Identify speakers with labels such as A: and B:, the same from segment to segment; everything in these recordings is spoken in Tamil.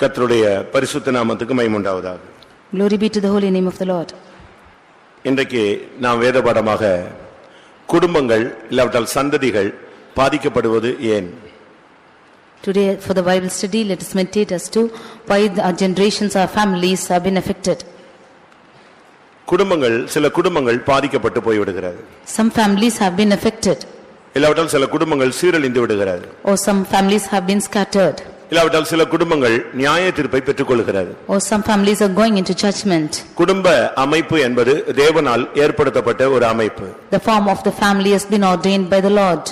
A: கர்த்தருடைய பரிசுத்த நாமத்துக்கு மைமுண்டாவதாக
B: Glory be to the holy name of the Lord.
A: இன்றைக்கு நாம் வேத பாடமாக குடும்பங்கள் இல்லாவிட்டால் சந்ததிகள் பாதிக்கப்படுவது ஏன்
B: Today, for the Bible study, let us meditate as to why the- our generations, our families have been affected.
A: குடும்பங்கள் சில குடும்பங்கள் பாதிக்கப்பட்டு போய்விடுகிறது
B: Some families have been affected,
A: இல்லாவிட்டால் சில குடும்பங்கள் சீரழிந்து விடுகிறது
B: or some families have been scattered,
A: இல்லாவிட்டால் சில குடும்பங்கள் நியாய தீர்ப்பை பெற்றுக்கொள்கிறது
B: or some families are going into judgment.
A: குடும்ப அமைப்பு என்பது தேவனால் ஏற்படுத்தப்பட்ட ஒரு அமைப்பு
B: The form of the family has been ordained by the Lord.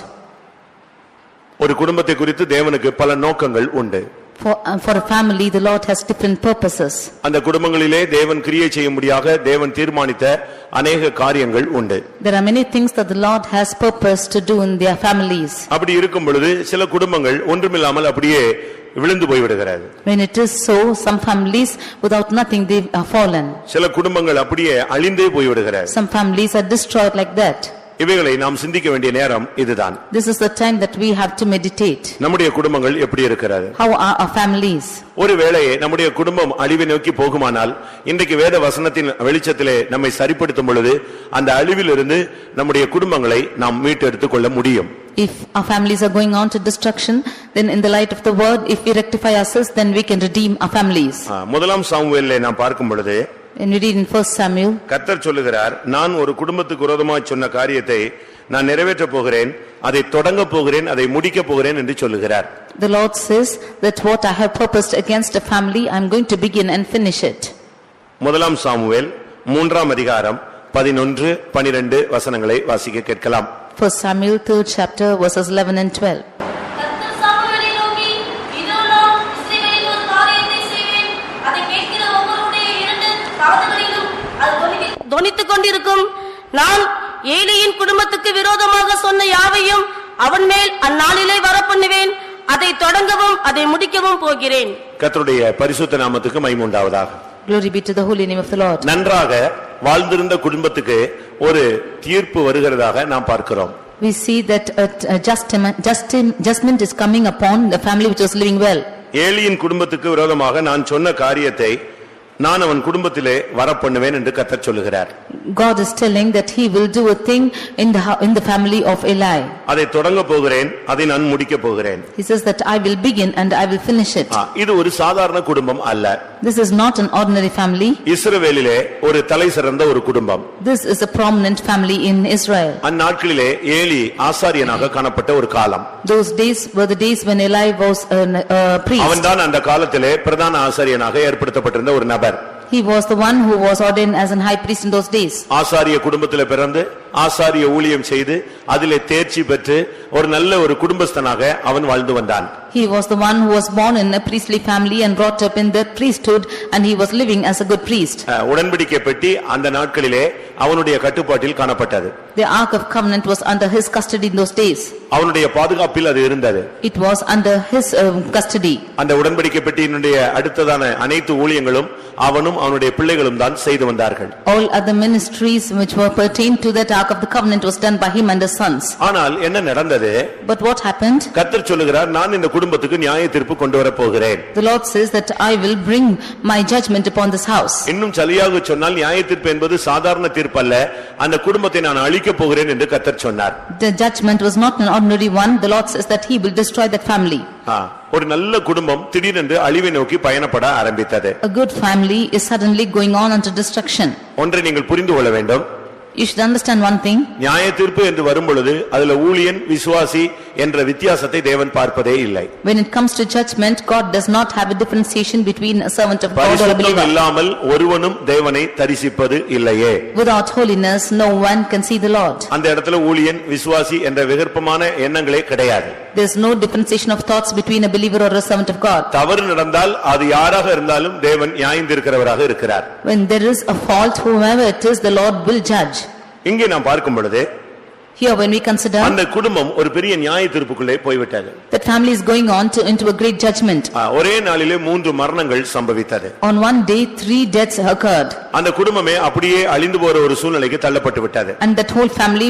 A: ஒரு குடும்பத்தை குறித்து தேவனுக்கு பல நோக்கங்கள் உண்டு
B: For uh, for a family, the Lord has different purposes.
A: அந்த குடும்பங்களிலே தேவன் கிரியை செய்யும்படியாக தேவன் தீர்மானித்த அநேக காரியங்கள் உண்டு
B: There are many things that the Lord has purpose to do in their families.
A: அப்படி இருக்கும் பொழுது சில குடும்பங்கள் ஒன்றுமில்லாமல் அப்படியே விழுந்து போய்விடுகிறது
B: When it is so, some families without nothing, they are fallen.
A: சில குடும்பங்கள் அப்படியே அழிந்தே போய்விடுகிறது
B: Some families are destroyed like that.
A: இவைகளை நாம் சிந்திக்க வேண்டிய நேரம் இதுதான்
B: This is the time that we have to meditate.
A: நம்முடைய குடும்பங்கள் எப்படி இருக்கிறது
B: How are our families?
A: ஒருவேளை நம்முடைய குடும்பம் அழிவை நோக்கி போகுமானால் இன்றைக்கு வேத வசனத்தின் வெளிச்சத்திலே நம்மை சரிப்படுத்தும் பொழுது அந்த அழிவிலிருந்து நம்முடைய குடும்பங்களை நாம் மீட்டெடுத்துக் கொள்ள முடியும்
B: If our families are going on to destruction, then in the light of the word, if we rectify ourselves, then we can redeem our families.
A: ஆ, முதலாம் சாமுவேல்ல நாம் பார்க்கும் பொழுது
B: When we read in first Samuel,
A: கர்த்தர் சொல்லுகிறார் நான் ஒரு குடும்பத்துக்கு விரோதமாய் சொன்ன காரியத்தை நான் நிறைவேற்றப் போகிறேன் அதை தொடங்கப் போகிறேன் அதை முடிக்கப் போகிறேன் என்று சொல்லுகிறார்
B: the Lord says that what I have purposed against a family, I am going to begin and finish it.
A: முதலாம் சாமுவேல் மூன்றாம் அதிகாரம் பதினொன்று பனிரெண்டு வசனங்களை வாசிக்க கேட்கலாம்
B: First Samuel, third chapter, verses eleven and twelve.
C: கர்த்தர் சாமுவேலை நோக்கி, இதோ நான் இஸ்ரவேலில் ஒரு காரியத்தை செய்வேன். அதை கேட்கிற ஒவ்வொருவருடைய இரண்டு காதுகளிலும் அது தொனித்து- தொனித்துக் கொண்டிருக்கும் நான் ஏலியின் குடும்பத்துக்கு விரோதமாக சொன்ன யாவையும் அவன் மேல் அந்நாளிலே வரப்பண்ணுவேன் அதை தொடங்கவும் அதை முடிக்கவும் போகிறேன்
A: கர்த்தருடைய பரிசுத்த நாமத்துக்கு மைமுண்டாவதாக
B: Glory be to the holy name of the Lord.
A: நன்றாக வாழ்ந்திருந்த குடும்பத்துக்கு ஒரு தீர்ப்பு வருகிறதாக நாம் பார்க்கிறோm
B: We see that a a justim- justim- judgment is coming upon the family which was living well.
A: ஏலியின் குடும்பத்துக்கு விரோதமாக நான் சொன்ன காரியத்தை நான் அவன் குடும்பத்திலே வரப்பண்ணுவேன் என்று கர்த்தர் சொல்லுகிறார்
B: God is telling that he will do a thing in the, hou- in the family of Eli.
A: அதை தொடங்க போகிறேன் அதை நான் முடிக்க போகிறேன்
B: He says that I will begin and I will finish it.
A: ஆ, இது ஒரு சாதாரண குடும்பம் அல்ல
B: This is not an ordinary family.
A: இஸ்ரவேலிலே ஒரு தலை சிறந்த ஒரு குடும்பம்
B: This is a prominent family in Israel.
A: அந்நாட்களிலே ஏலி ஆசாரியனாக காணப்பட்ட ஒரு காலம்
B: Those days were the days when Eli was a priest.
A: அவன்தான் அந்த காலத்திலே பிரதான ஆசாரியனாக ஏற்படுத்தப்பட்டிருந்த ஒரு நபர்
B: He was the one who was ordained as an high priest in those days.
A: ஆசாரிய குடும்பத்திலே பிறந்து ஆசாரிய ஊழியம் செய்து அதிலே தேர்ச்சி பெற்று ஒரு நல்ல ஒரு குடும்பஸ்தனாக அவன் வாழ்ந்து வந்தான்
B: He was the one who was born in a priestly family and brought up in the priesthood and he was living as a good priest.
A: அஹ், உடன்படிக்கை பெட்டி அந்த நாட்களிலே அவனுடைய கட்டுப்பாட்டில் காணப்பட்டது
B: The Ark of Covenant was under his custody in those days.
A: அவனுடைய பாதுகாப்பில் அது இருந்தது
B: It was under his um, custody.
A: அந்த உடன்படிக்கை பெட்டியினுடைய அடுத்ததான அனைத்து ஊழியங்களும் அவனும் அவனுடைய பிள்ளைகளும் தான் செய்து வந்தார்கள்
B: All other ministries which were pertained to that ark of the covenant was done by him and his sons.
A: ஆனால் என்ன நடந்தது
B: But what happened?
A: கர்த்தர் சொல்லுகிறார் நான் இந்த குடும்பத்துக்கு நியாய தீர்ப்பு கொண்டு வரப் போகிறேன்
B: The Lord says that I will bring my judgment upon this house.
A: இன்னும் சரியாக சொன்னால் நியாய தீர்ப்பு என்பது சாதாரண தீர்ப்பு அல்ல அந்த குடும்பத்தை நான் அழிக்கப் போகிறேன் என்று கர்த்தர் சொன்னார்
B: The judgment was not an ordinary one. The Lord says that he will destroy that family.
A: ஆ, ஒரு நல்ல குடும்பம் திடீரென்று அழிவை நோக்கி பயணப்பட ஆரம்பித்தது
B: A good family is suddenly going on unto destruction.
A: ஒன்றை நீங்கள் புரிந்து கொள்ள வேண்டும்
B: You should understand one thing.
A: நியாய தீர்ப்பு என்று வரும் பொழுது அதுல ஊழியன் விசுவாசி என்ற வித்தியாசத்தை தேவன் பார்ப்பதே இல்லை
B: When it comes to judgment, God does not have a differentiation between a servant of God or a
A: பரிசுத்தம்
B: believer.
A: இல்லாமல் ஒருவனும் தேவனை தரிசிப்பது இல்லையே
B: Without holiness, no one can see the Lord.
A: அந்த இடத்துல ஊழியன் விசுவாசி என்ற விகற்பமான எண்ணங்களே கிடையாது
B: There is no differentiation of thoughts between a believer or a servant of God.
A: தவறு நடந்தால் அது யாராக இருந்தாலும் தேவன் நியாயந்திருக்கிறவராக இருக்கிறார்
B: When there is a fault, whomever it is, the Lord will judge.
A: இங்கே நாம் பார்க்கும் பொழுது
B: Here, when we consider
A: அந்த குடும்பம் ஒரு பெரிய நியாய தீர்ப்புக்குள்ளே போய்விட்டது
B: that family is going on to into a great judgment.
A: ஆ, ஒரே நாளிலே மூன்று மரணங்கள் சம்பவித்தது
B: On one day, three deaths occurred
A: அந்த குடும்பமே அப்படியே அழிந்து போற ஒரு சூழ்நிலைக்கு தள்ளப்பட்டு விட்டது
B: and that whole family